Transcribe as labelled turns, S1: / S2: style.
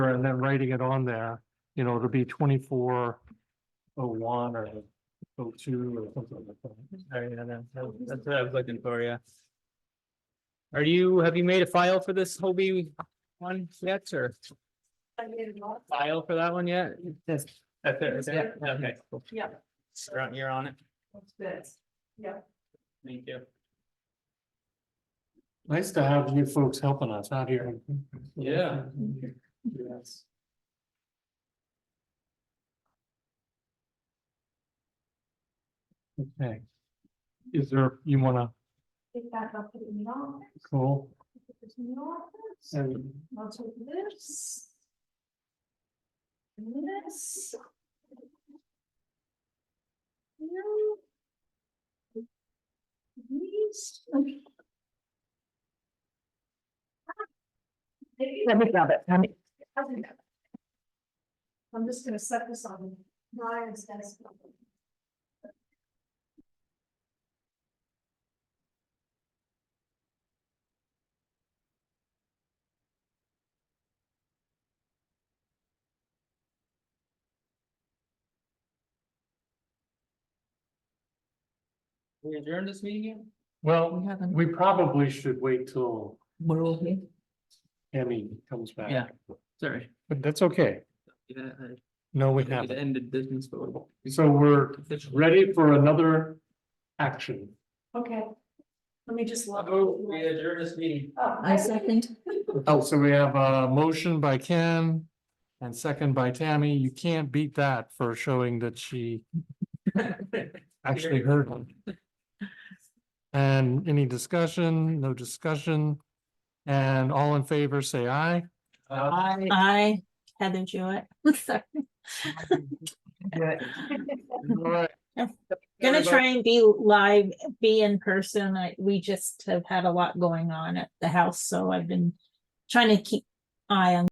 S1: and then writing it on there, you know, it'll be twenty-four oh one or oh two or something like that.
S2: Sorry, Oh, yeah, that- that- that's what I was looking for, yeah. Are you, have you made a file for this Hobie one yet, or file for that one yet?
S3: This,
S2: That's it, is it? Okay, cool.
S3: yeah,
S2: You're on- You're on it.
S3: what's this? Yeah.
S2: Thank you.
S1: Nice to have you folks helping us out here.
S2: Yeah.
S1: Yes. Okay. Is there, you wanna,
S3: Pick that up, put it in the office,
S1: cool,
S3: put this in the office,
S1: and
S3: I'll take this. And this. Yeah. These. Let me grab it, I'm just gonna set this on Ryan's desk.
S2: We adjourned this meeting yet?
S1: Well, we probably should wait till
S3: We're all here.
S1: Emmy comes back.
S2: Yeah. Sorry.
S1: But that's okay.
S2: Yeah, I-
S1: No, we
S2: It
S1: haven't.
S2: ended business, but.
S1: So we're
S2: officially.
S1: ready for another action.
S3: Okay. Let me just log.
S2: Oh, We adjourned this meeting.
S3: I second.
S1: Oh, so we have a motion by Ken and second by Tammy. You can't beat that for showing that she actually heard one. And any discussion, no discussion, and all in favor, say aye.
S2: Aye.
S4: I Heather Jewett. Sorry.
S1: All right.
S4: Gonna
S2: Everybody-
S4: try and be live, be in person. I, we just have had a lot going on at the house, so I've been trying to keep eye on